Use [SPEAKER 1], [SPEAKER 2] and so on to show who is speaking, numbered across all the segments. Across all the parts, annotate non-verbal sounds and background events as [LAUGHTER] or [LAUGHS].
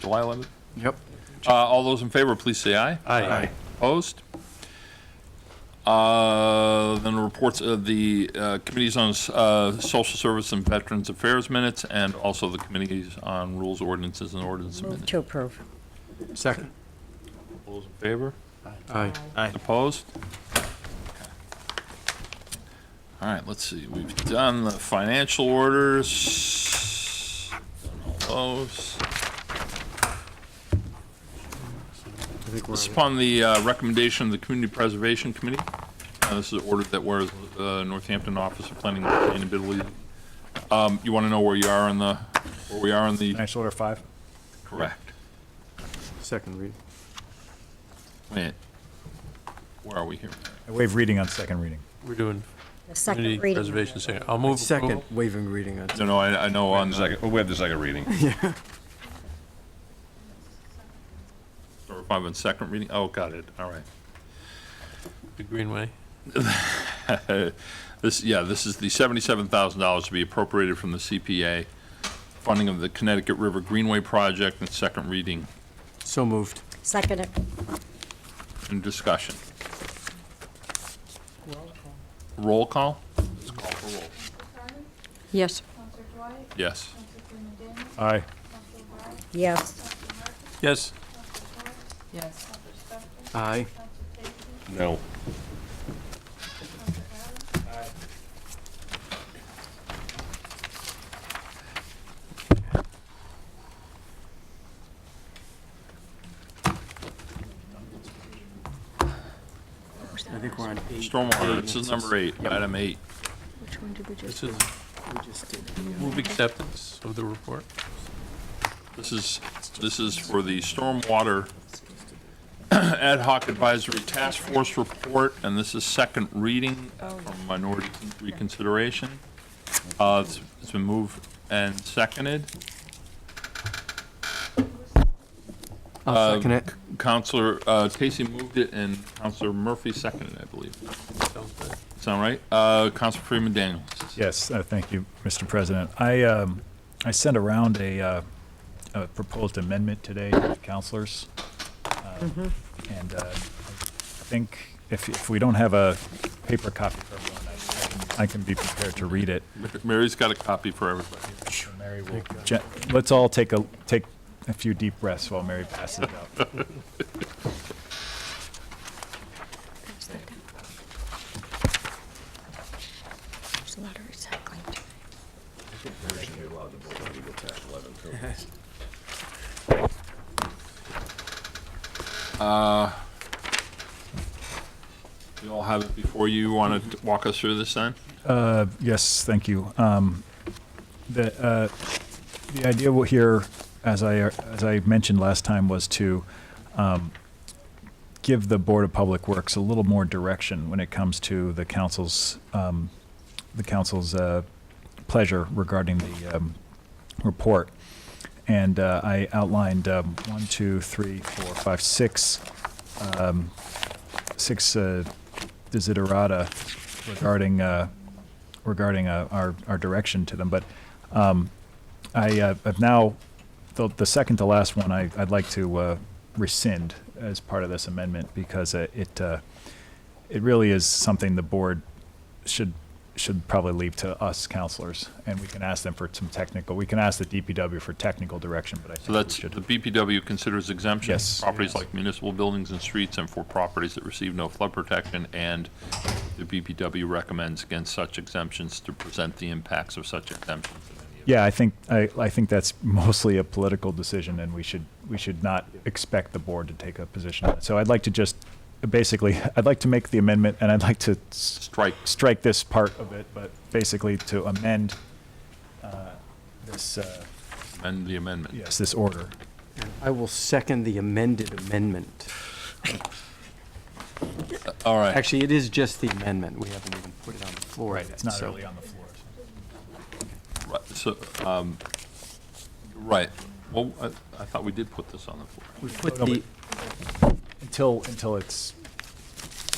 [SPEAKER 1] July 11th.
[SPEAKER 2] Yep.
[SPEAKER 1] Uh, All those in favor, please say aye.
[SPEAKER 2] Aye.
[SPEAKER 1] Opposed? Uh, Then the reports of the uh, Committees on uh, Social Service and Veterans Affairs minutes, and also the Committees on Rules, Ordinances, and Ordinance
[SPEAKER 3] Move
[SPEAKER 1] minutes.
[SPEAKER 3] to approve.
[SPEAKER 2] Second.
[SPEAKER 1] All those in favor?
[SPEAKER 2] Aye.
[SPEAKER 1] Opposed? All right, let's see, we've done the financial orders. done all Those.
[SPEAKER 2] I think
[SPEAKER 1] This is
[SPEAKER 2] we're,
[SPEAKER 1] upon the uh, recommendation of the Community Preservation Committee. Uh, This is ordered that whereas uh, Northampton Office of Planning and Sustainability, Um, you want to know where you are on the, where we are on the,
[SPEAKER 4] Financial Order 5.
[SPEAKER 1] correct.
[SPEAKER 2] second read.
[SPEAKER 1] Wait, where are we here?
[SPEAKER 4] I waive reading on second reading.
[SPEAKER 5] We're doing
[SPEAKER 3] The
[SPEAKER 5] community
[SPEAKER 3] second reading.
[SPEAKER 5] preservation second. I'll move
[SPEAKER 2] Second,
[SPEAKER 5] approval.
[SPEAKER 2] waiving reading. on-
[SPEAKER 1] No, no, I I know on
[SPEAKER 6] the
[SPEAKER 1] the
[SPEAKER 6] second, we have the second reading.
[SPEAKER 1] number five on second reading, oh, got it, all right.
[SPEAKER 5] The Greenway.
[SPEAKER 1] [LAUGHS] This, yeah, this is the $77,000 to be appropriated from the CPA, funding of the Connecticut River Greenway Project, and second reading
[SPEAKER 2] So moved.
[SPEAKER 3] Second it.
[SPEAKER 1] and discussion. Roll call? Let's call for roll.
[SPEAKER 3] Yes.
[SPEAKER 1] Yes.
[SPEAKER 4] Aye.
[SPEAKER 3] Yes.
[SPEAKER 5] Yes,
[SPEAKER 3] Yes.
[SPEAKER 2] Aye.
[SPEAKER 6] No.
[SPEAKER 2] I think we're on eight.
[SPEAKER 1] Stormwater, this is number eight, item eight.
[SPEAKER 3] Which one did we
[SPEAKER 5] this is
[SPEAKER 2] We just did.
[SPEAKER 5] move acceptance of the report.
[SPEAKER 1] This is, this is for the Stormwater [CLEARS THROAT] Ad hoc Advisory Task Force Report, and this is second reading from minority reconsideration. Uh, It's it's been moved and seconded.
[SPEAKER 2] I'll second it.
[SPEAKER 1] Counselor uh, Casey moved it, and Counselor Murphy seconded, it, I believe.
[SPEAKER 5] Sounds good.
[SPEAKER 1] Sound right? Uh, Counselor Freeman Daniels.
[SPEAKER 4] Yes, uh, thank you, Mr. President. I, um, I sent around a, uh, a proposed amendment today to counselors. Um, And uh, I think if, if we don't have a paper copy for everyone, I can- I can be prepared to read it.
[SPEAKER 1] Mary's got a copy for everybody.
[SPEAKER 4] Mary will, Gen- let's all take a, take a few deep breaths while Mary passes it out.
[SPEAKER 3] There's a lot of recycling. too.
[SPEAKER 1] You all have it before you. Want to walk us through this then?
[SPEAKER 4] Uh, Yes, thank you. Um, The uh, the idea wa- here, as I, as I mentioned last time, was to um, give the Board of Public Works a little more direction when it comes to the council's, um, the council's uh, pleasure regarding the um, report. And uh, I outlined um, one, two, three, four, five, six, um, six uh, desiderata regarding uh, regarding uh, our our direction to them. But um, I uh, I've now the, the second to last one I I'd like to uh, rescind as part of this amendment because uh, it uh, it really is something the board should should probably leave to us counselors and we can ask them for some technical we can ask the DPW for technical direction but I think
[SPEAKER 1] So that's,
[SPEAKER 4] we
[SPEAKER 1] the
[SPEAKER 4] should
[SPEAKER 1] BPW considers exemptions.
[SPEAKER 4] Yes.
[SPEAKER 1] Properties like municipal buildings and streets and for properties that receive no flood protection, and the BPW recommends against such exemptions to present the impacts of such exemptions.
[SPEAKER 4] Yeah, I think, I, I think that's [LAUGHS] mostly a political decision, and we should, we should not expect the board to take a position on it. So I'd like to just, basically, [LAUGHS] I'd like to make the amendment, and I'd like to s-
[SPEAKER 1] Strike,
[SPEAKER 4] strike this part of it, but basically to amend uh, this, uh,
[SPEAKER 1] amend the amendment.
[SPEAKER 4] yes, this order.
[SPEAKER 2] And I will second the amended amendment.
[SPEAKER 1] All right.
[SPEAKER 2] Actually, it is just the amendment. We haven't even put it on the floor yet.
[SPEAKER 4] It's not
[SPEAKER 2] so-
[SPEAKER 4] really on the floor.
[SPEAKER 1] Right, So, um, right, well, I, I thought we did put this on the floor.
[SPEAKER 2] We put
[SPEAKER 4] No,
[SPEAKER 2] the,
[SPEAKER 4] Until, until it's,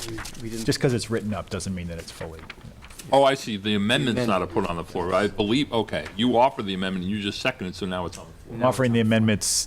[SPEAKER 2] we- we didn't.
[SPEAKER 4] just because it's written up doesn't mean that it's fully. you know.
[SPEAKER 1] Oh, I see, the amendment's not put on the floor, I believe, okay, you offered the amendment, and you just seconded, so now it's on the floor.
[SPEAKER 2] No, it's
[SPEAKER 4] Offering the amendments